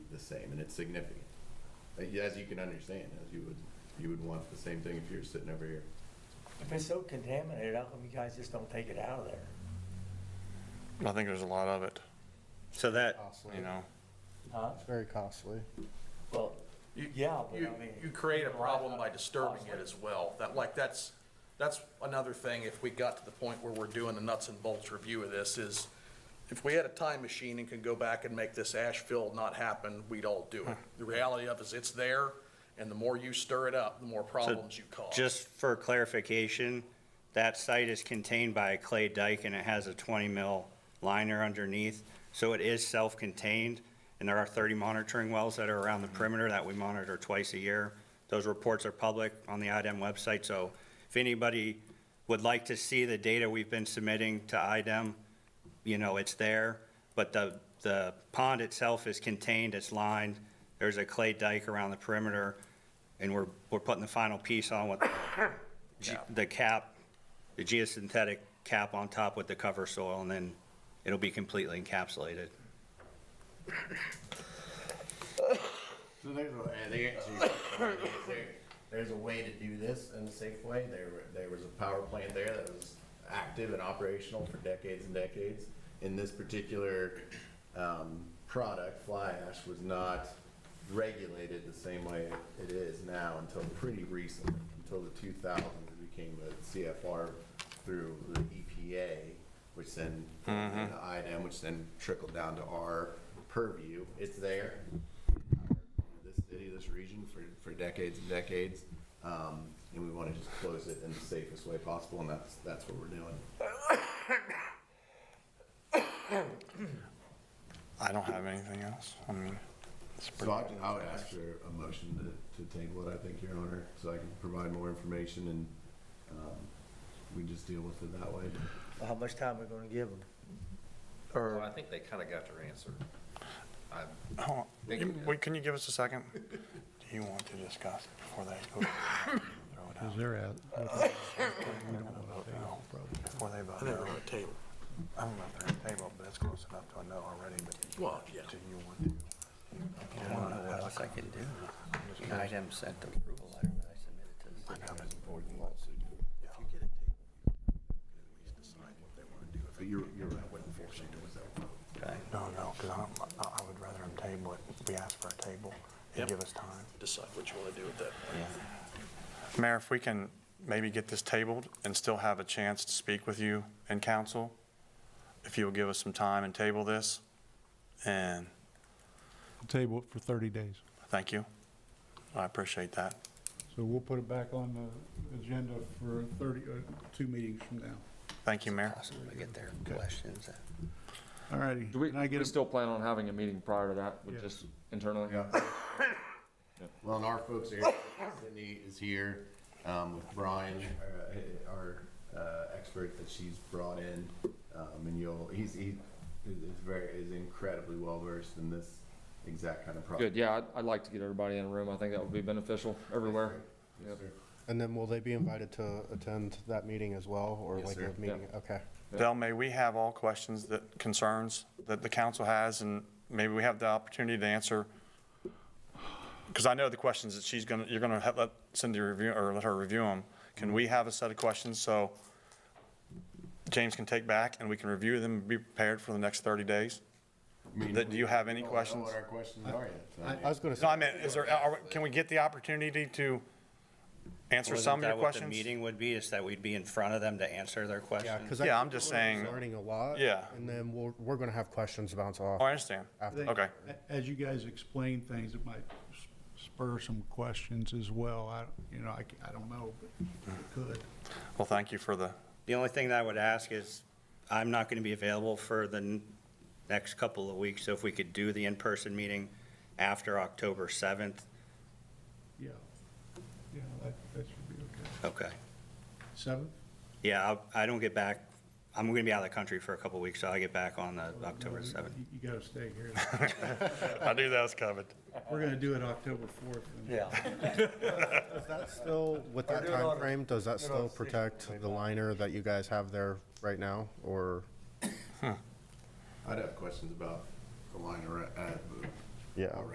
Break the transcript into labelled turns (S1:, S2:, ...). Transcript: S1: same, and it's significant. Uh, yeah, As you can understand, as you would, you would want the same thing if you were sitting over here.
S2: If it's so contaminated, how come you guys just don't take it out of there?
S3: I think there's a lot of it,
S4: So that,
S5: Costly.
S3: you know?
S2: Huh?
S5: It's very costly.
S2: Well,
S6: You-
S2: yeah, but I
S6: You,
S2: mean.
S6: you create a problem by disturbing it as well. That, like, that's, that's another thing, if we got to the point where we're doing the nuts and bolts review of this, is if we had a time machine and could go back and make this ash fill not happen, we'd all do it. The reality of it is, it's there, and the more you stir it up, the more problems you cause.
S4: just for clarification, that site is contained by a clay dike and it has a 20 mil liner underneath. So it is self-contained and there are 30 monitoring wells that are around the
S6: Mm-hmm.
S4: perimeter that we monitor twice a year. Those reports are public on the IDEM website, so if anybody would like to see the data we've been submitting to E IDEM, you know, it's there, but the, the pond itself is contained, it's lined, there's a clay dike around the perimeter, and we're, we're putting the final piece on with the ge- the cap, the geosynthetic cap on top with the cover soil, and then it'll be completely encapsulated.
S1: So there's a, uh, they actually- there's a- there's a way to do this in a safe way. There, were- there was a power plant there that was active and operational for decades and decades. And this particular, um, product, fly ash, was not regulated the same way it is now until pretty recently, until the two thousands, it became a CFR through the EPA, which then, and the IDM, which then trickled down to our purview. It's there this city, this region for, for decades and decades. Um, and we want to just close it in the safest way possible, and that's, that's what we're doing.
S3: I don't have anything else. I mean, it's
S1: So
S3: pretty,
S1: I, I would ask for a motion to, to table it, I think, Your Honor, so I can provide more information and, um, we just deal with it that way.
S2: Well, How much time we gonna give them?
S7: Well, I
S2: Or,
S7: think they kind of got their answer. I-
S3: hold on.
S7: Thank you.
S3: Wait, can you give us a second? Do you want to discuss before they go? throw it out?
S5: They're at.
S3: Before they vote?
S2: they're on the table.
S3: I don't know if they're on the table, but it's close enough to a no already, but
S6: Well, yeah.
S3: do you want to?
S8: I don't know what else I can do. IDEM sent the approval letter that I submitted to the city.
S1: But you're, you're right.
S8: Okay.
S3: No, no, because I don't, I I would rather them table it. We ask for a table and
S6: Yep.
S3: give us time.
S6: Decide what you want to do with that.
S3: Mayor, if we can maybe get this tabled and still have a chance to speak with you and council, if you'll give us some time and table this, and
S9: table it for 30 days.
S3: thank you. I appreciate that.
S9: So we'll put it back on the agenda for 30, uh, two meetings from now.
S3: Thank you, Mayor.
S8: Possible to get their questions.
S9: All righty.
S10: Do we,
S9: Can I get
S10: we
S9: a-
S10: still plan on having a meeting prior to that, with
S9: Yes.
S10: just internally?
S1: Well, and our folks are, here. Sydney is here, um, with Brian, uh, our, uh, expert that she's brought in. Um, and you'll, he's, he is is very, is incredibly well versed in this exact kind of problem.
S10: Good, yeah, I'd, I'd like to get everybody in a room, I think that would be beneficial everywhere.
S1: Yes, sir.
S5: And then will they be invited to attend that meeting as well, or
S1: Yes,
S5: like
S1: sir.
S5: a meeting? Okay.
S3: Del, may we have all questions that, concerns that the council has, and maybe we have the opportunity to answer? Because I know the questions that she's gonna, you're gonna have- let Cindy review, or let her review them. Can we have a set of questions so James can take back and we can review them and be prepared for the next 30 days?
S1: I mean,
S3: That- do you have
S1: we
S3: any
S1: don't know
S3: questions?
S1: What our questions are yet. so-
S5: I was gonna
S3: No, I
S5: say,
S3: meant, is there, are, can we get the opportunity to answer some of your
S4: Wasn't that what the
S3: questions?
S4: meeting would be, is that we'd be in front of them to answer their
S5: yeah,
S4: questions?
S5: because
S3: Yeah, I'm just saying,
S5: Learning a lot.
S3: Yeah.
S5: And then we're, we're gonna have questions bounce
S3: Oh, I
S5: off.
S3: understand.
S5: after.
S3: Okay.
S9: A- As you guys explain things, it might s- spur some questions as well. I, you know, I, c- I don't know, but it could.
S3: Well, thank you for the,
S4: The only thing that I would ask is, I'm not going to be available for the n- next couple of weeks, so if we could do the in-person meeting after October 7th,
S9: Yeah. Yeah, that, that should be okay.
S4: okay.
S9: Seven?
S4: Yeah, I'll- I don't get back, I'm going to be out of the country for a couple of weeks, so I get back on the October 7th.
S9: You gotta stay here.
S3: I knew that was coming.
S9: We're gonna do it October 4th. and-
S2: Yeah,
S5: Is that still, with that
S2: Or do it on-
S5: time frame? does that
S2: do it on
S5: still
S2: stage.
S5: protect the liner that you guys have there right now, or?
S1: I'd have questions about the line around, uh,
S5: Yeah.